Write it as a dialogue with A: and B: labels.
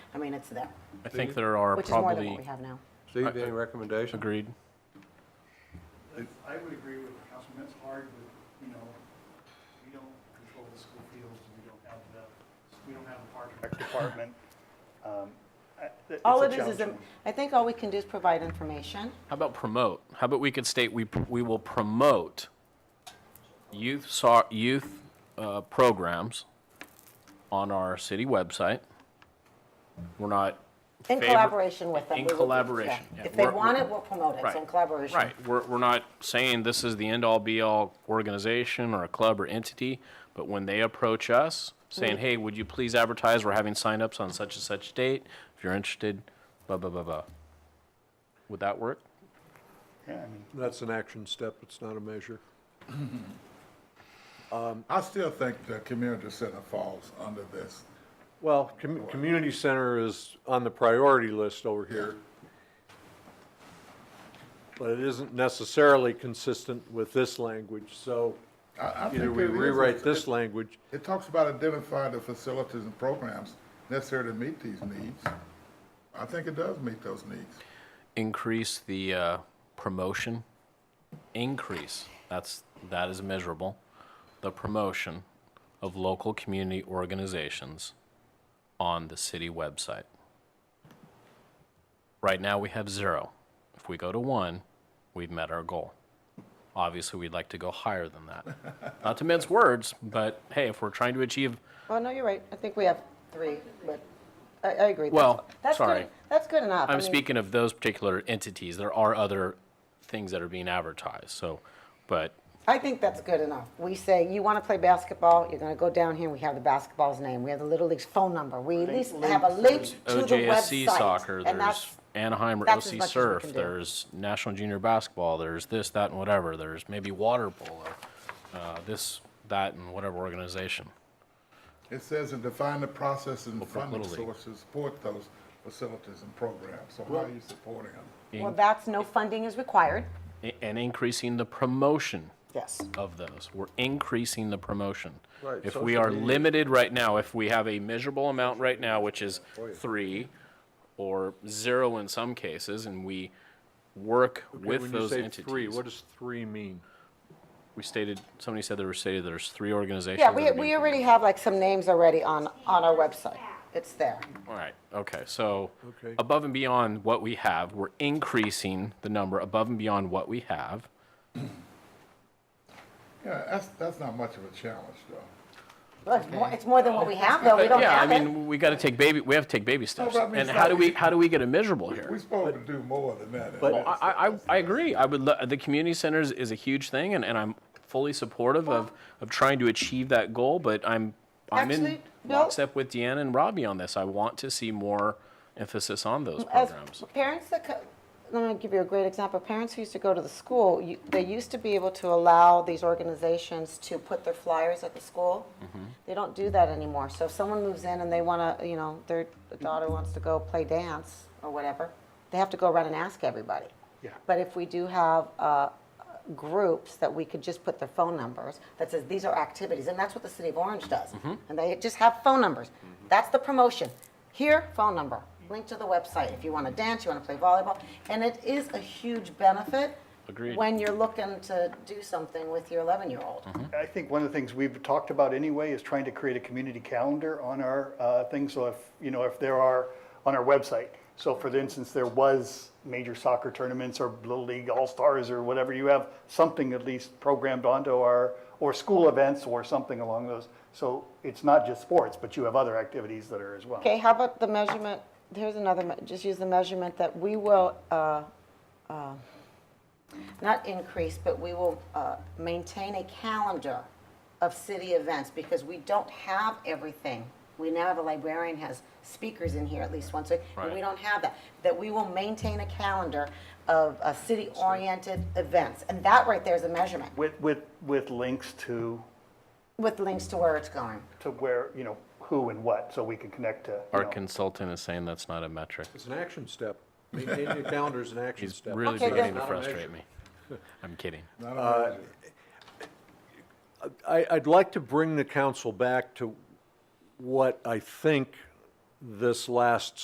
A: I mean, it's there,
B: I think there are
A: which is more than what
B: probably,
A: we have now.
C: Steve,
B: I-
C: any recommendation?
B: agreed.
D: I would agree with Councilman, it's hard with, you know, we don't control the school fields, we don't have the, we don't have a park and rec department. Um, I- it's
A: All
D: a
A: it is is,
D: challenge.
A: I think all we can do is provide information.
B: How about promote? How about we could state we, we will promote youth, so- youth uh, programs on our city website. We're not,
A: In
B: Favor-
A: collaboration with them.
B: in
A: we would-
B: collaboration,
A: yeah.
B: yeah.
A: If they
B: We're-
A: want it, we'll promote it,
B: Right.
A: so in collaboration.
B: right, we're, we're not saying this is the end-all, be-all organization or a club or entity, but when they approach us
A: Mm.
B: saying, hey, would you please advertise, we're having signups on such and such date, if you're interested, blah, blah, blah, blah. Would that work?
D: Yeah, I mean,
C: That's an action step, it's not a measure.
E: I still think the community center falls under this.
C: Well, com- community center is on the priority list over here. But it isn't necessarily consistent with this language, so
E: I, I think
C: either we
E: it is.
C: rewrite this
E: It-
C: language.
E: It talks about identifying the facilities and programs necessary to meet these needs. I think it does meet those needs.
B: increase the uh, promotion increase that's that is measurable the promotion of local community organizations on the city website right now we have zero if we go to one we've met our goal obviously we'd like to go higher than that not to mince words but hey if we're trying to achieve
A: Oh, no, you're right, I think we have three, but I, I agree. That's-
B: Well,
A: that's good-
B: sorry.
A: That's good enough. I
B: I'm
A: mean,
B: speaking of those particular entities. There are other things that are being advertised. So, but
A: I think that's good enough. We say, you want to play basketball, you're going to go down here, we have the basketball's name, we have the Little League's phone number. We at least have a link to the website.
B: OJSC soccer,
A: and
B: there's
A: that's-
B: Anaheim or
A: that's as
B: OC
A: much as we
B: Surf,
A: can do.
B: there's National Junior Basketball, there's this, that, and whatever. There's maybe water polo, uh, this, that, and whatever organization.
E: It says and define the process and funding
B: Little League.
E: sources to support those facilities and programs. So how are you supporting them?
A: Well, that's, no funding is required.
B: I- And increasing the promotion
A: Yes.
B: of those. We're increasing the promotion.
C: Right,
B: If
C: social
B: we are
C: media.
B: limited right now, if we have a measurable amount right now, which is
C: Oh,
B: three or zero in some cases, and we work with
C: When you
B: those
C: say
B: entities.
C: three, what does three mean?
B: We stated, somebody said there were stated there's three organizations.
A: Yeah,
B: that
A: we,
B: are being
A: we already have like some names already on, on our website. It's there.
B: All right, okay, so
C: Okay.
B: above and beyond what we have, we're increasing the number above and beyond what we have.
E: Yeah, that's, that's not much of a challenge, though.
A: Well, It's more, it's more than what we have, though. We don't
B: Yeah, I
A: have it.
B: mean, we gotta take baby, we have to take baby steps.
E: but I mean,
B: And
E: it's
B: how
E: not-
B: do we, how do we get a measurable
E: We're
B: here?
E: supposed to do more than that.
B: Well, I, I, I agree, I would, lo- the community centers is a huge thing, and, and I'm fully supportive of, of trying to achieve that goal, but I'm, I'm in
A: Actually, no.
B: lockstep with Deanna and Robbie on this. I want to see more emphasis on those
A: As
B: programs.
A: parents that, co- let me give you a great example. Parents who used to go to the school, you- they used to be able to allow these organizations to put their flyers at the school.
B: Mm-hmm.
A: They don't do that anymore. So if someone moves in and they want to, you know, their daughter wants to go play dance or whatever, they have to go around and ask everybody.
D: Yeah.
A: But if we do have uh, groups that we could just put their phone numbers, that says, these are activities, and that's what the city of Orange does. And they just have phone numbers. That's the promotion. Here, phone number, link to the website if you want to dance, you want to play volleyball. And it is a huge benefit.
B: Agreed.
A: When you're looking to do something with your 11-year-old.
D: I think one of the things we've talked about anyway is trying to create a community calendar on our uh, thing. So if, you know, if there are, on our website. So for instance, there was major soccer tournaments or Little League All-Stars or whatever, you have something at least programmed onto our, or school events or something along those. So it's not just sports, but you have other activities that are as well.
A: Okay, how about the measurement, here's another, me- just use the measurement that we will, uh, uh, not increase, but we will uh, maintain a calendar of city events because we don't have everything. We now have a librarian has speakers in here at least once a week, and we
B: Right.
A: don't have that. That we will maintain a calendar of uh, city-oriented events. And that right there is a measurement
D: With, with, with links to,
A: with links to where it's going.
D: to where, you know, who and what, so we can connect to. you
B: Our
D: know.
B: consultant is saying that's not a metric.
C: It's an action step. Maintaining a calendar is an action
B: He's
C: step.
B: really
A: Okay,
B: beginning
A: then-
B: to
C: Not a measure.
B: frustrate me. I'm kidding.
E: Not
C: uh,
E: a measure.
C: I, I'd like to bring the council back to what I think this last